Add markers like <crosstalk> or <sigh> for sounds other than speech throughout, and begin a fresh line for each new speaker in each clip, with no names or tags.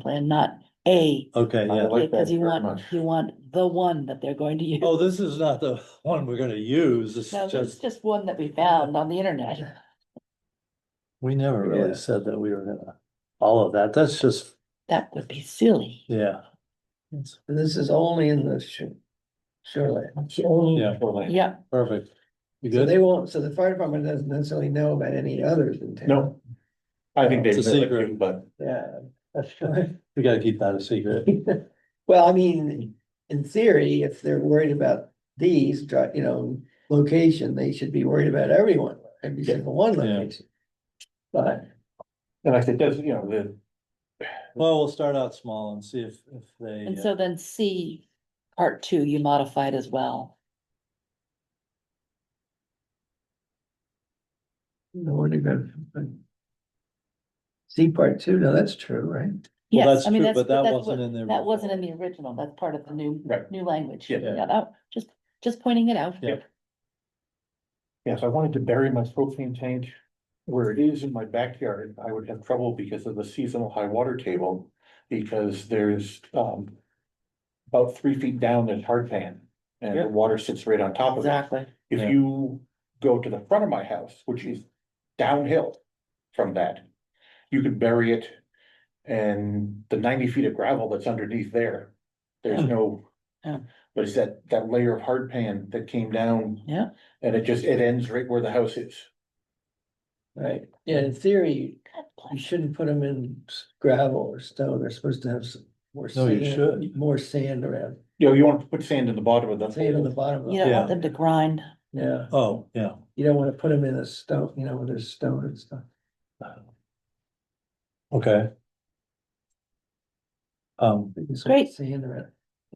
plan, not a.
Okay,
I
yeah.
like that
Because you
very
want,
much.
you want the one that they're going to use.
Oh, this is not the one we're gonna use. It's
No, it's
just,
just one that we found on the internet.
we never really
Yeah.
said that we were gonna, all of that. That's just,
That would be silly.
yeah.
This is only in the sh- shoreline.
Yeah.
Yeah,
Perfect. You
So
good?
they won't, so the fire department doesn't necessarily know about any others in town.
No. I think they.
It's a
really
secret.
do, But
Yeah.
We gotta keep that a secret.
<laughs> Well, I mean, in theory, if they're worried about these, dri- you know, location, they should be worried about everyone, every single one
Yeah.
location. But
and like I said, does, you know, the,
Well, we'll start out small and see if, if they.
and
uh,
so then C, part two, you modified as well.
no one even. See part two, no, that's true, right?
Well,
Yes,
that's
I mean,
true,
that's,
but that
that's
wasn't
what,
in the.
that wasn't in the original, that's part of the new,
Right.
new language.
Yeah.
that- just, just pointing it out.
Yeah.
yes, I wanted to bury my propane tank. Where it is in my backyard, I would have trouble because of the seasonal high water table, because there's, um. About three feet down, there's hardpan, and
Yeah.
the water sits right on top of it.
Exactly.
Yeah.
If you go to the front of my house, which is downhill from that, you could bury it. And the ninety feet of gravel that's underneath there, there's no.
Yeah.
But it's that, that layer of hard pan that came down.
Yeah.
And it just, it ends right where the house is.
Right, yeah, in theory,
God bless.
you shouldn't put them in s- gravel or stone, they're supposed to have some more.
No, you
sand-
should.
More sand around,
You know, you want to put sand in the bottom of the.
sand on the bottom of
You
it,
don't
Yeah.
want them to grind.
yeah,
Oh, yeah.
you don't wanna put them in a stone, you know, where there's stone and stuff.
Okay. Um,
But you just want
Great.
Sand around,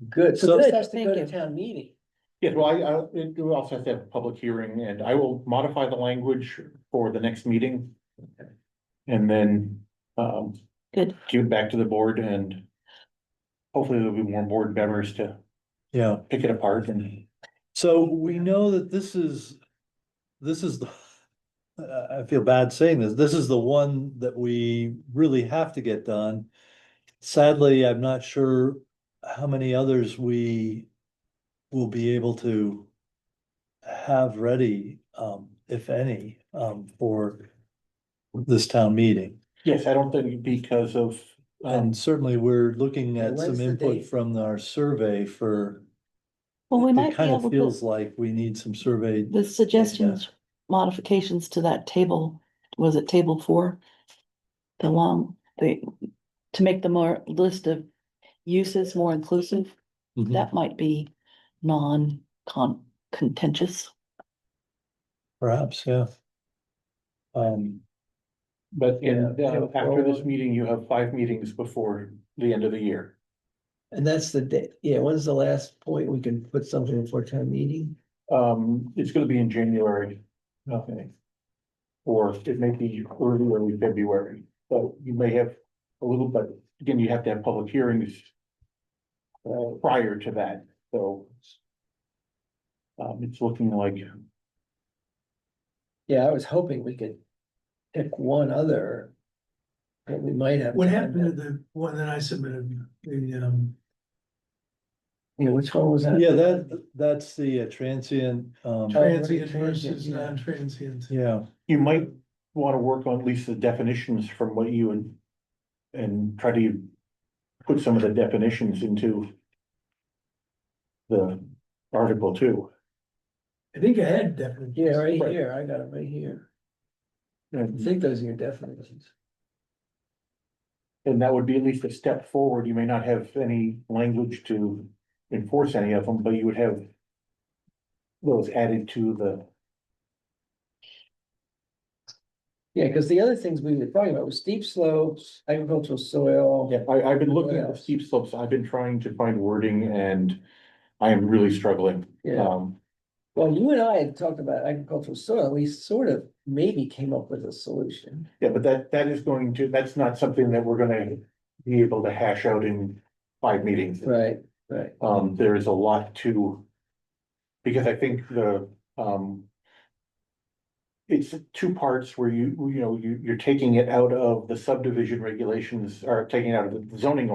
good,
So-
so this has to
Thank
go to
you.
town meeting.
Yeah, well, I, I, we also have to have a public hearing and I will modify the language for the next meeting. And then, um,
Good.
give it back to the board and hopefully there'll be more board members to
yeah.
pick it apart and
So we know that this is, this is the, I, I feel bad saying this, this is the one that we really have to get done. Sadly, I'm not sure how many others we will be able to have ready, um, if any, um, for this town meeting.
yes, I don't think because of um,
And certainly, we're looking
And
at some
when's the
input
date?
from our survey for,
Well, we
it
might be
kind of
able
feels
to,
like we need some survey
the suggestions, modifications to that table, was it table four? The long, the, to make the more list of uses more inclusive,
Mhm.
that might be non-con contentious.
Perhaps, yeah. Um,
but in
Yeah,
uh,
yeah,
after this
well-
meeting, you have five meetings before the end of the year.
And that's the day, yeah, when's the last point we can put something before town meeting?
Um, it's gonna be in January. Okay. Or it may be early, early February, but you may have a little, but again, you have to have public hearings. Uh, prior to that, so. Um, it's looking like,
Yeah, I was hoping we could pick one other. That we might have.
What
time
happened to the one that I submitted, the, um,
Yeah, which one was that?
yeah, that, that's the uh, transient, um,
Oh,
transient
right,
versus
transient, yeah.
non-transient?
yeah,
you might wanna work on at least the definitions from what you and. And try to put some of the definitions into. The article too,
I think I had definitely.
Yeah, right
Right.
here, I got it right here. I
and
think those are your definitions.
And that would be at least a step forward. You may not have any language to enforce any of them, but you would have. Those added to the,
Yeah, because the other things we were talking about was steep slopes, agricultural soil.
yeah, I, I've been looking at the steep slopes. I've been trying to find wording and I am really struggling.
Yeah,
Um,
well, you and I had talked about agricultural soil, we sort of maybe came up with a solution.
yeah, but that, that is going to, that's not something that we're gonna be able to hash out in five meetings.
Right, right.
Um, there is a lot to. Because I think the, um. it's two parts where you, you know, you, you're taking it out of the subdivision regulations, or taking it out of the zoning